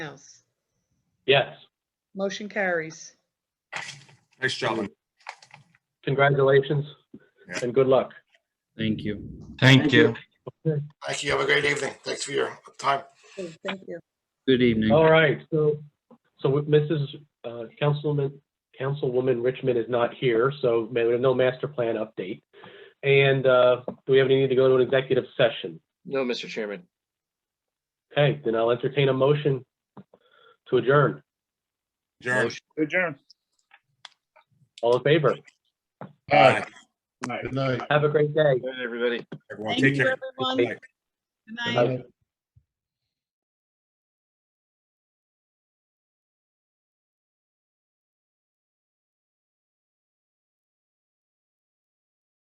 House. Yes, Motion carries. Nice job. congratulations Yeah. and good luck. Thank you. Thank you. Thank you. Have a great evening. Thanks for your time. Okay, Thank you. Good evening. All right, so, so with Mrs. uh, Councilman, Councilwoman Richmond is not here, so ma- we have no master plan update. And uh, do we have any need to go to an executive session? No, Mr. Chairman. Okay, then I'll entertain a motion to adjourn. Adjourn. Adjourn. All in favor? Bye, Good night. Good night. Have a great day. Good, everybody. everyone. Thank Take you, care. everyone. Good night. Good night.